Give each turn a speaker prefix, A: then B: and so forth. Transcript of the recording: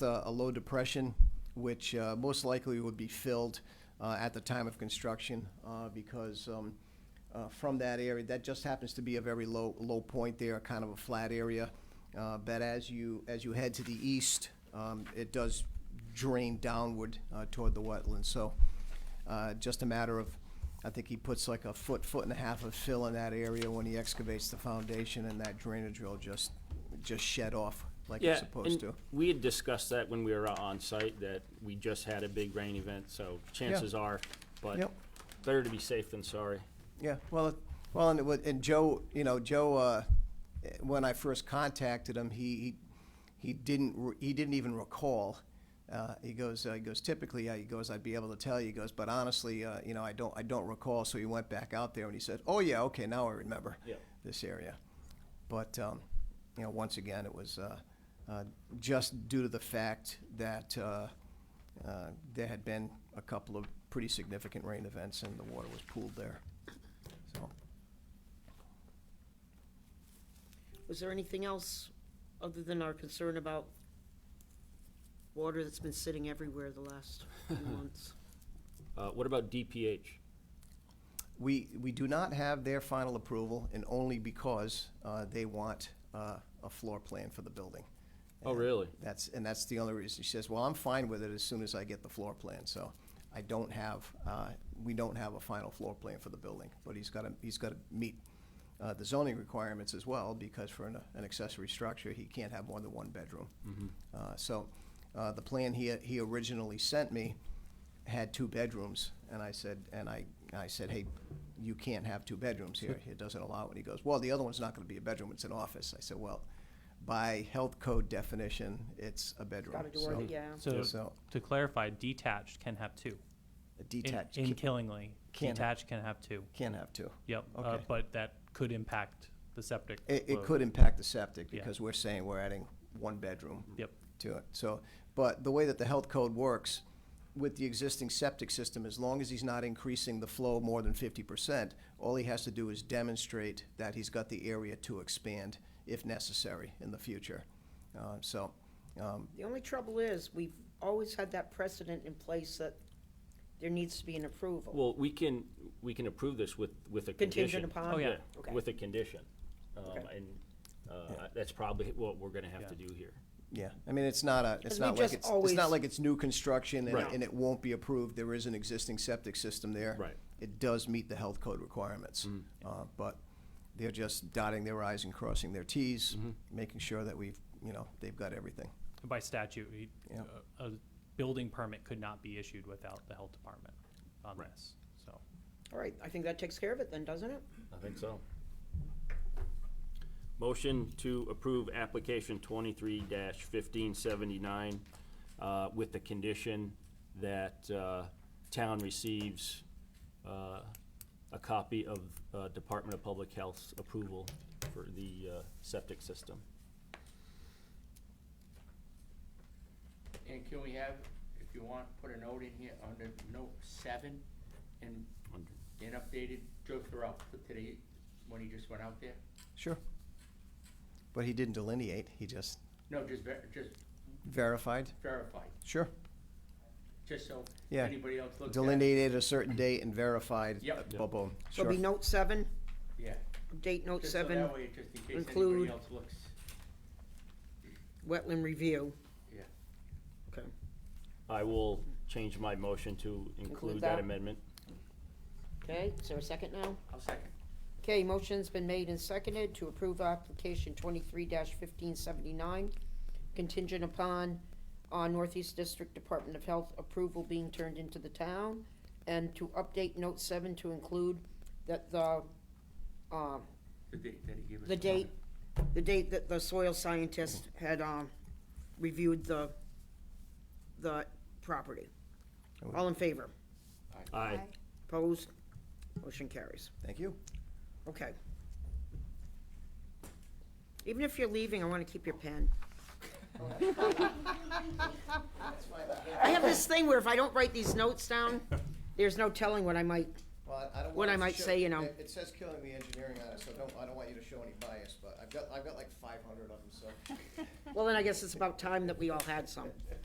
A: uh, a low depression, which uh, most likely would be filled uh, at the time of construction uh, because um, uh, from that area, that just happens to be a very low, low point there, kind of a flat area. Uh, But as you, as you head to the east, um, it does drain downward uh, toward the wetland. So uh, just a matter of, I think he puts like a foot, foot and a half of fill in that area when he excavates the foundation, and that drainage will just, just shed off like
B: Yeah,
A: it's supposed
B: and
A: to.
B: We had discussed that when we were out on site, that we just had a big rain event, so chances are, but
A: Yep.
B: better to be safe than sorry.
A: Yeah, well, it- well, and, it wa- and Joe, you know, Joe, uh, eh, when I first contacted him, he, he, he didn't, re- he didn't even recall. Uh, he goes, uh, he goes, typically, uh, he goes, I'd be able to tell you, he goes, but honestly, uh, you know, I don't, I don't recall. So he went back out there and he said, oh yeah, okay, now I remember
B: Yeah.
A: this area. But, um, you know, once again, it was, uh, uh, just due to the fact that, uh, uh, there had been a couple of pretty significant rain events and the water was pooled there. So,
C: Was there anything else other than our concern about water that's been sitting everywhere the last few months?
B: Uh, what about DPH?
A: We, we do not have their final approval, and only because uh, they want uh, a floor plan for the building.
B: Oh, really?
A: That's, and that's the only reason. She says, well, I'm fine with it as soon as I get the floor plan, so I don't have, uh, we don't have a final floor plan for the building. But he's got to, he's got to meet uh, the zoning requirements as well, because for an an accessory structure, he can't have more than one bedroom.
B: Mm-hmm.
A: Uh, So uh, the plan he, he originally sent me had two bedrooms, and I said, and I, I said, hey, you can't have two bedrooms here, it doesn't allow it. He goes, well, the other one's not gonna be a bedroom, it's an office. I said, well, by health code definition, it's a bedroom.
C: Got a door, that- yeah.
D: So,
A: So
D: to clarify, detached can have two.
A: a
D: In-
A: detached
D: In
A: ca-
D: Killingly,
A: can't have-
D: detached can have two.
A: can't have two.
D: Yep, uh,
A: Okay.
D: but that could impact the septic.
A: It, it
D: load.
A: could impact the septic,
D: Yeah.
A: because we're saying we're adding one bedroom.
D: Yep.
A: to it. So, but the way that the health code works with the existing septic system, as long as he's not increasing the flow more than fifty percent, all he has to do is demonstrate that he's got the area to expand if necessary in the future. Uh, so, um,
C: The only trouble is, we've always had that precedent in place that there needs to be an approval.
B: Well, we can, we can approve this with, with a condition.
C: Contingent upon?
D: Oh, yeah.
C: Okay.
B: With a condition. Um,
C: Okay.
B: and, uh, that's probably what we're gonna have to do here.
A: yeah, I mean, it's not a, it's
C: Because
A: not
C: we
A: like
C: just
A: it's, it's
C: always-
A: not like it's new construction and,
B: Right.
A: and it won't be approved. There is an existing septic system there.
B: Right.
A: It does meet the health code requirements,
E: Mm.
A: uh, but they're just dotting their i's and crossing their t's,
E: Mm-hmm.
A: making sure that we've, you know, they've got everything.
D: By statute, you-
A: Yeah.
D: a a building permit could not be issued without the health department on
B: Right.
D: this, so.
C: All right, I think that takes care of it then, doesn't it?
B: I think so. Motion to approve application twenty-three fifteen seventy-nine, uh, with the condition that, uh, town receives, uh, a copy of, uh, Department of Public Health's approval for the, uh, septic system.
E: And can we have, if you want, put a note in here under note seven and, and updated Joe Thoreau for today, when he just went out there?
A: Sure. But he didn't delineate, he just
E: No, just ver- just
A: verified.
E: verified,
A: Sure.
E: just so
A: Yeah.
E: anybody else looks at it.
A: Delineated a certain date and verified.
E: Yep.
A: uh,
E: Yep.
A: Boom, boom.
C: So it'll
A: Sure.
C: be note seven,
E: Yeah,
C: update note
E: just so
C: seven,
E: that way, just in case
C: include-
E: anybody else looks,
C: wetland review.
E: yeah.
C: Okay.
B: I will change my motion to include that
C: that.
B: amendment.
C: Okay, is there a second now?
E: I'll second.
C: Okay, motion's been made and seconded to approve application twenty-three fifteen seventy-nine, contingent upon, uh, Northeast District Department of Health approval being turned into the town, and to update note seven to include that the, uh,
E: The date that he gave us.
C: the date, the date that the soil scientist had, um, reviewed the, the property. All in favor?
B: Aye.
C: Opposed? Motion carries.
A: Thank you.
C: Okay. Even if you're leaving, I want to keep your pen. I have this thing where if I don't write these notes down, there's no telling what I might
A: Well, I I don't
C: What
A: want
C: I
A: it to
C: might
A: show-
C: say, you know.
A: It it says killing the engineering on it, so don't, I don't want you to show any bias, but I've got, I've got like five hundred of them, so.
C: Well, then I guess it's about time that we all had some.